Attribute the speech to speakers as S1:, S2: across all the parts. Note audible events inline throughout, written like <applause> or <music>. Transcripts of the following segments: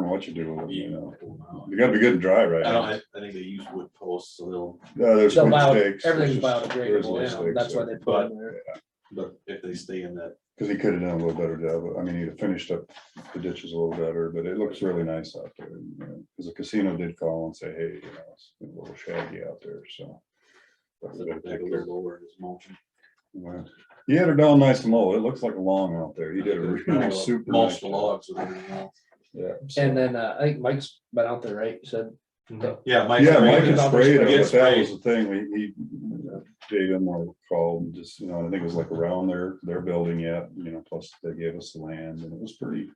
S1: what you're doing with it, you know. You gotta be good and dry right
S2: I don't,
S1: now.
S2: I, I think they use wood posts, so they'll,
S1: No, there's
S3: So
S1: some
S3: bio,
S1: mistakes.
S3: everything's
S1: There's just- there is
S3: biodegradable now,
S1: mistakes
S3: that's why
S1: there.
S3: they put it in there.
S2: but if they stay in that,
S1: Cause he could have done a little better job, but I mean, he'd have finished up the ditches a little better, but it looks really nice out there. you know, Cause the casino did call and say, hey, you know, it's a little shaggy out there, so. But we better
S2: that
S1: take care
S2: little
S1: of it.
S2: lower is mulching.
S1: Wow. You had her down nice and low. It looks like a long out there. You did a
S2: There's
S1: really
S2: no
S1: super.
S2: Mulch
S1: nice
S2: the
S1: job.
S2: logs with everything else.
S1: Yeah.
S3: And
S1: so-
S3: then, uh, I think Mike's been out there, right, said,
S2: Yeah, Mike.
S1: Yeah,
S3: sprayed
S1: Mike
S3: it.
S1: had sprayed it,
S2: Get
S1: but that
S2: sprayed.
S1: was the thing, we, he, Dave Enmore called, and just, you know, I think it was like around their, their building yet, you know, plus they gave us the land, and it was pretty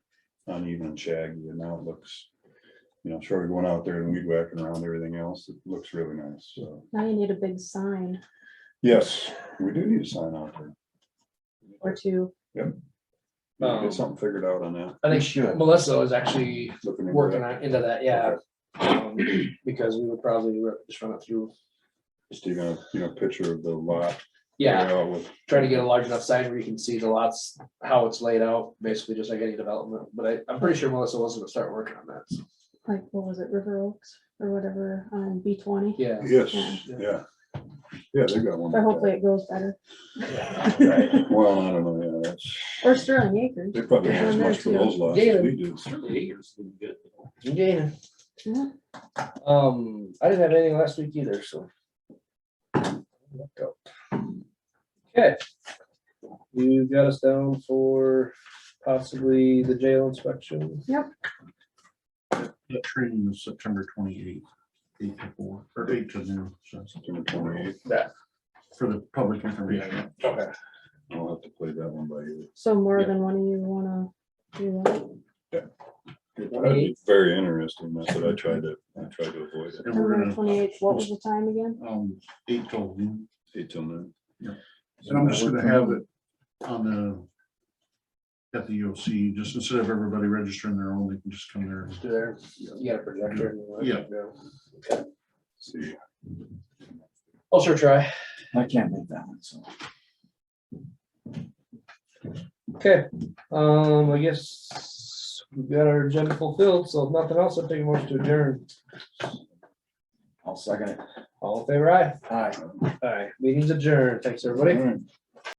S1: uneven and shaggy, and now it looks, you know, sure, we went out there and weed whacking around everything else, it looks really nice, so,
S4: Now you need a big sign
S1: yes, we do need a sign out there.
S4: or two.
S1: We need to
S3: Um,
S1: Get something figured out on that.
S3: I think
S2: should.
S3: Melissa was actually
S1: Looking into
S3: working
S1: that.
S3: on, into that, yeah. um, Because we would probably re- just run it through,
S1: Just do a, you know, picture of the lot.
S3: yeah,
S1: layout with-
S3: try to get a large enough sign where you can see the lots, how it's laid out, basically just like any development, but I, I'm pretty sure Melissa was gonna start working on that, so,
S4: like, what was it, River Oaks or whatever, on B twenty,
S3: yeah.
S1: Yes, yeah. Yeah, they got one.
S4: but
S1: like
S4: hopefully it goes better,
S1: that. <laughs> Well, I don't know, yeah, that's.
S4: or Sterling Acres.
S1: They probably have as much for those lots as we do.
S3: Yeah.
S4: Yeah.
S3: Um, I didn't have anything last week either, so. Okay. You got us down for possibly the jail inspection.
S5: The training is September twenty-eighth, eight to four, or eight to noon, so it's
S1: September 28th.
S3: That,
S5: for the public information.
S3: okay.
S1: I'll have to play that one by ear.
S4: So more
S5: Yeah.
S4: than one of you wanna do that,
S1: That'd be Very interesting. That's what I tried to, I tried to avoid it.
S5: And we're
S4: September
S5: gonna,
S4: twenty-eighth, what was the time again?
S5: Um, eight till noon,
S1: Eight till noon.
S5: Yeah. and I'm just gonna have it on the, at the EOC, just instead of everybody registering their own, they can just come there.
S3: Do there, you got a projector? and all that?
S5: Yeah.
S1: See,
S3: I'll sure try.
S5: I can't make that one, so.
S3: Okay, um, I guess we've got our agenda fulfilled, so if nothing else, I'll take a motion to adjourn.
S5: I'll second it.
S3: All in favor, aye?
S5: Aye.
S3: Aye, meeting's adjourned. Thanks, everybody.
S1: All right.